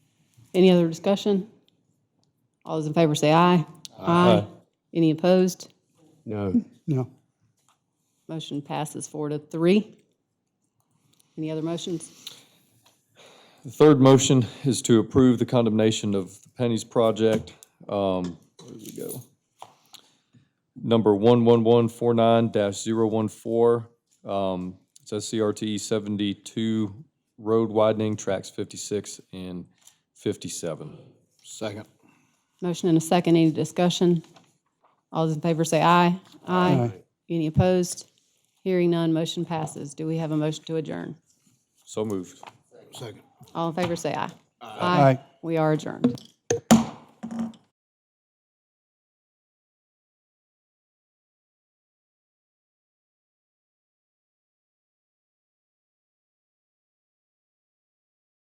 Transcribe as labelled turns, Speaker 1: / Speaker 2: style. Speaker 1: Any other discussion? All those in favor say aye. Aye. Any opposed?
Speaker 2: No.
Speaker 3: No.
Speaker 1: Motion passes four to three. Any other motions?
Speaker 4: The third motion is to approve the condemnation of the Pennies project. Um, Where did we go? Number 11149-014. um, It's SCRT 72 road widening, tracks 56 and 57.
Speaker 2: Second.
Speaker 1: Motion and a second, any discussion? All those in favor say aye. Aye. Any opposed? Hearing none, motion passes. Do we have a motion to adjourn?
Speaker 4: So moved.
Speaker 2: Second.
Speaker 1: All in favor say aye.
Speaker 3: Aye.
Speaker 1: We are adjourned.